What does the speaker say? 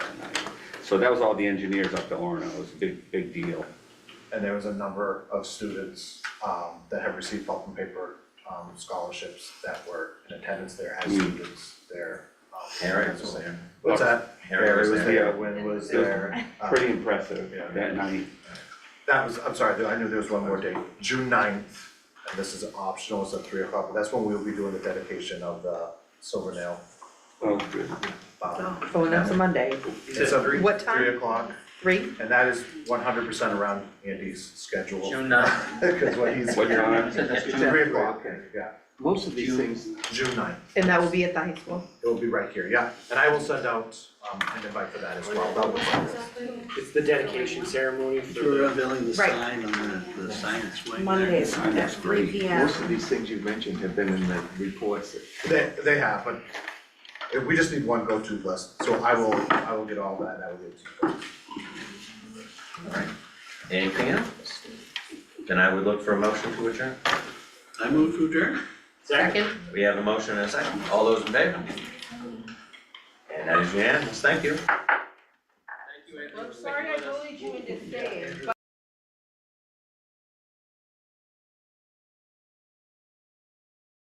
So that was all the engineers up to Orno, it was a big, big deal. And there was a number of students um that have received pulp and paper um scholarships that were in attendance there as Mm. students there. um, Harry as was well. there. What's that? Harry was there. Wynn was It was there. um, Pretty impressive yeah. that night. That was, I'm sorry, I knew there was one more date, June 9th, and this is optional, it's at three o'clock, but that's when we'll be doing the dedication of the Silver Nail. Oh, good. um, Oh, and that's a Monday, It's at What time? Three o'clock, three? and that is one hundred percent around Andy's schedule. June ninth. Cause what he's What here, time? it's three o'clock, yeah, Most of these June. things, June 9th. And that will be at the high school. it will be right here, yeah, and I will send out um an invite for that as well, that was It's the dedication ceremony for you're the, unveiling the Right. sign on the, the science wing. there. Mondays Time at was three great. P M. Most of these things you've mentioned have been in the reports. They they have, but if we just need one go-to list, so I will, I will get all that, and I will get it to you. Anything else? Then I would look for a motion to adjourn. I move to adjourn. Second. We have a motion and a second. All those in favor? And that is unanimous. Thank you. Thank you, Anthony. I'm sorry I go